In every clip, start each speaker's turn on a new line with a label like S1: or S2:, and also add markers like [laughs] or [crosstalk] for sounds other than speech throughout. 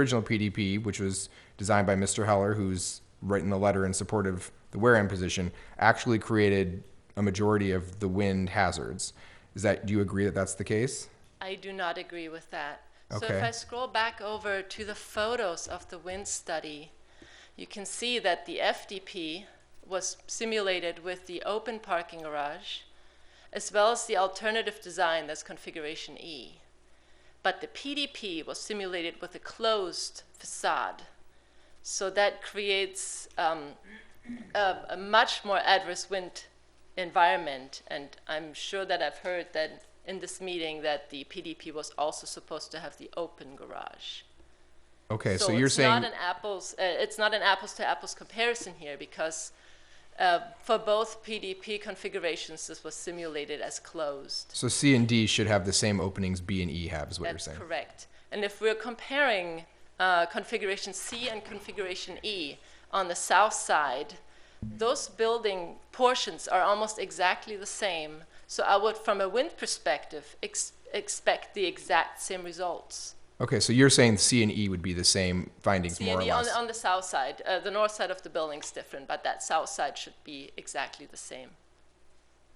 S1: original PDP, which was designed by Mr. Heller, who's written the letter in support of the Wareham position, actually created a majority of the wind hazards. Is that, do you agree that that's the case?
S2: I do not agree with that. So
S1: Okay.
S2: if I scroll back over to the photos of the wind study, you can see that the FDP was simulated with the open parking garage, as well as the alternative design that's configuration E. But the PDP was simulated with a closed facade. So that creates um, a, a much more adverse wind environment. And I'm sure that I've heard that in this meeting that the PDP was also supposed to have the open garage.
S1: Okay, so you're
S2: it's
S1: saying,
S2: not an apples. Uh, it's not an apples to apples comparison here because uh, for both PDP configurations, this was simulated as closed.
S1: so C and D should have the same openings B and E have, is what you're
S2: That's
S1: saying?
S2: correct. And if we're comparing uh, configuration C and configuration E on the south side, those building portions are almost exactly the same. So I would, from a wind perspective, ex- expect the exact same results.
S1: Okay, so you're saying C and E would be the same findings,
S2: See,
S1: more or
S2: the- E on,
S1: less?
S2: on the south side, uh, the north side of the building's different, but that south side should be exactly the same.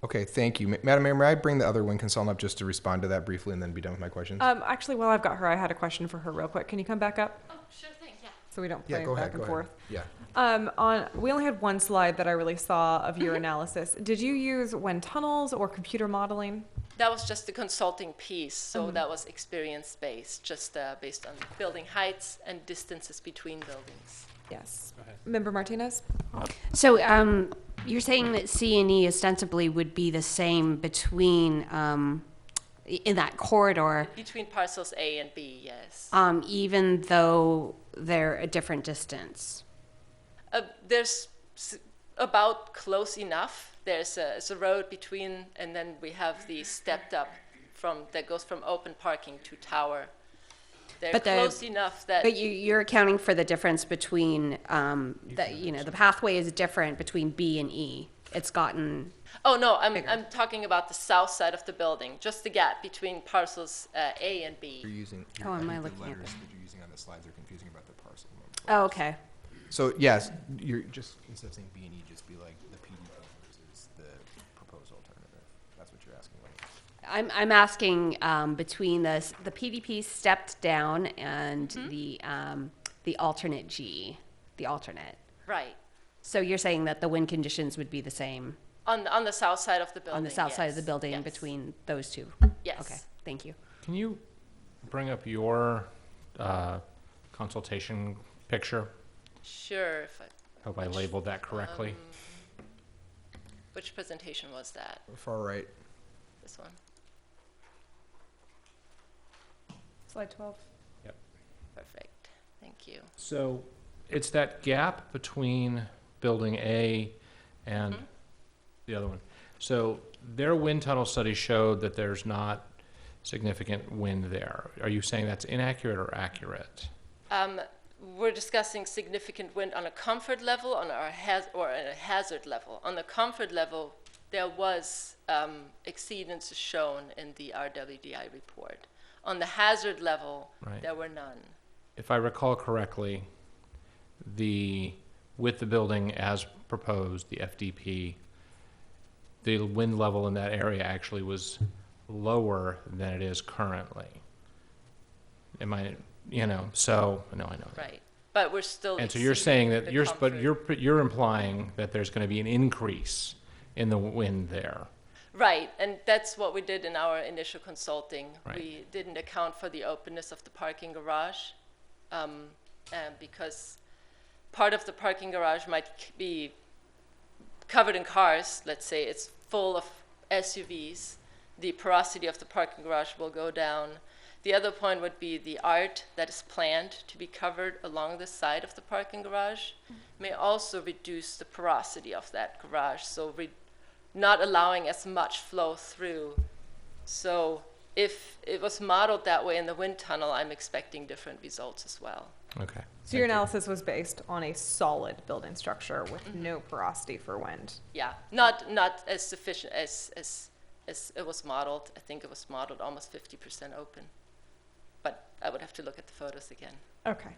S1: Okay, thank you. Ma- Madam Mayor, may I bring the other wind consultant up just to respond to that briefly and then be done with my questions?
S3: Uh,
S4: Um, actually, while I've got her, I had a question for her real quick. Can you come back up
S2: Oh, sure thing, yeah.
S4: so we don't play
S1: Yeah, go
S4: back
S1: ahead,
S4: and
S1: go ahead.
S4: forth?
S1: Yeah.
S4: Um, on we only had one slide that I really saw of
S2: [laughs]
S4: your analysis. Did you use wind tunnels or computer modeling?
S2: That was just the consulting piece, so
S1: Mm-hmm.
S2: that was experience based, just uh, based on building heights and distances between buildings.
S4: Yes. Member Martinez.
S3: So um, you're saying that C and E ostensibly would be the same between, um, i- in that corridor,
S2: Between parcels A and B, yes.
S3: um, even though they're a different distance?
S2: Uh, there's s- about close enough. There's a, it's a road between, and then we have the stepped up from that goes from open parking to tower. They're
S3: But the-
S2: close enough that
S3: But you, you're accounting for the difference between, um, the, you know, the pathway is different between B and E. It's gotten,
S2: Oh, no, I'm, I'm talking about the south side of the building, just the gap between parcels uh, A and
S1: You're
S2: B.
S1: using.
S3: Oh,
S1: I
S3: am I
S1: think the
S3: looking at
S1: letters
S3: the-
S1: that you're using on the slides are confusing about the parcel.
S3: oh, okay.
S1: So, yes, you're just, instead of saying B and E, just be like the PD versus the proposed alternative. That's what you're asking, right?
S3: I'm, I'm asking um, between the, s- the PDP stepped down and the, um, the alternate G, the alternate.
S2: Right.
S3: So you're saying that the wind conditions would be the same
S2: On, on the south side of the building.
S3: on the south side of the
S2: yes,
S3: building
S2: yes.
S3: between those two?
S2: Yes.
S3: Okay, thank you.
S5: Can you bring up your uh, consultation picture?
S2: Sure. if I-
S5: Hope I labeled that correctly.
S2: Which presentation was that?
S1: Far right.
S2: This one?
S4: Slide twelve.
S2: Perfect. Thank you.
S5: So it's that gap between building A and the other one. So their wind tunnel study showed that there's not significant wind there. Are you saying that's inaccurate or accurate?
S2: Um, We're discussing significant wind on a comfort level, on our haz- or on a hazard level. On the comfort level, there was um, exceedance shown in the RWDI report. On the hazard level,
S5: Right.
S2: there were none.
S5: If I recall correctly, the, with the building as proposed, the FDP, the wind level in that area actually was lower than it is currently. Am I, you know, so, no, I know. that.
S2: Right. But we're still.
S5: And so you're
S2: exceeding
S5: saying that
S2: the
S5: you're, sp- but
S2: comfort.
S5: you're, you're implying that there's going to be an increase in the wind there.
S2: Right, and that's what we did in our initial consulting.
S5: Right.
S2: We didn't account for the openness of the parking garage, um, and because part of the parking garage might c- be covered in cars, let's say it's full of SUVs, the porosity of the parking garage will go down. The other point would be the art that is planned to be covered along the side of the parking garage may also reduce the porosity of that garage, so re- not allowing as much flow through. So if it was modeled that way in the wind tunnel, I'm expecting different results as well.
S5: Okay.
S4: So your analysis was based on a solid building structure with
S2: Mm-hmm.
S4: no porosity for wind.
S2: Yeah, not not as sufficient as as as it was modeled. I think it was modeled almost 50% open, but I would have to look at the photos again.
S4: Okay.